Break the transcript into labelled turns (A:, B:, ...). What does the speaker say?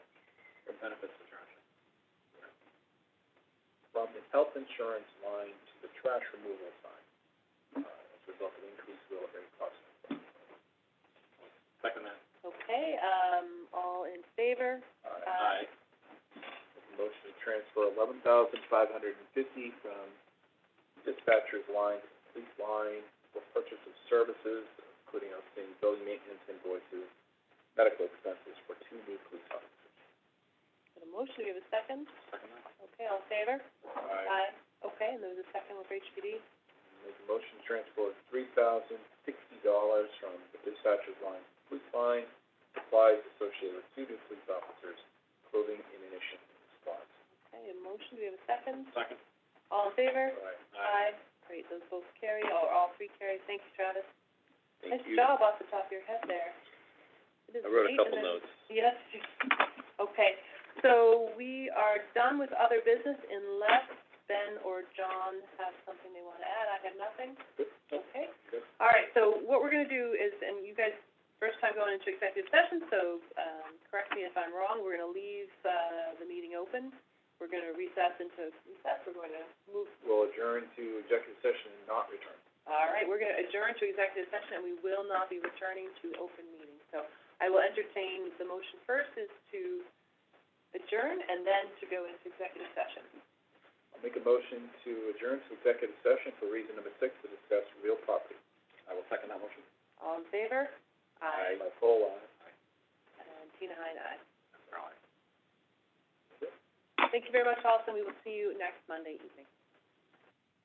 A: benefits attorney. From the health insurance line to the trash removal side, uh, as a result of increased real estate costs. Second that.
B: Okay, um, all in favor? Aye.
A: Make a Motion to transfer eleven thousand five hundred and fifty from dispatcher's line to police line for purchase of services, including outstanding building maintenance invoices, medical expenses for two new police officers.
B: Got a motion, do we have a second?
A: Second that.
B: Okay, all in favor?
A: Aye.
B: Okay, and there was a second one for HPD?
A: Make a motion to transfer three thousand sixty dollars from the dispatcher's line to police line, supplies associated with two new police officers, clothing and ammunition supplies.
B: Okay, a motion, do we have a second?
A: Second.
B: All in favor?
A: Aye.
B: Great, those both carry, or all three carry, thank you, Travis.
A: Thank you.
B: Nice job off the top of your head there. It is
A: I wrote a
B: late
A: couple
B: and then-
A: notes.
B: Yes, you- okay, so we are done with other business unless Ben or John have something they wanna add, I have nothing. Okay.
A: Good.
B: All right, so what we're gonna do is, and you guys, first time going into executive session, so, um, correct me if I'm wrong, we're gonna leave, uh, the meeting open. We're gonna recess into, recess, we're gonna move,
A: Will adjourn to executive session and not return.
B: all right, we're gonna adjourn to executive session, and we will not be returning to open meeting. So I will entertain, the motion first is to adjourn and then to go into executive session.
A: I'll make a motion to adjourn to executive session for reason number six to discuss real property. I will second that motion.
B: All in favor? Aye.
A: My poll, aye.
B: And Tina Hine, aye. Thank you very much, Allison, we will see you next Monday evening.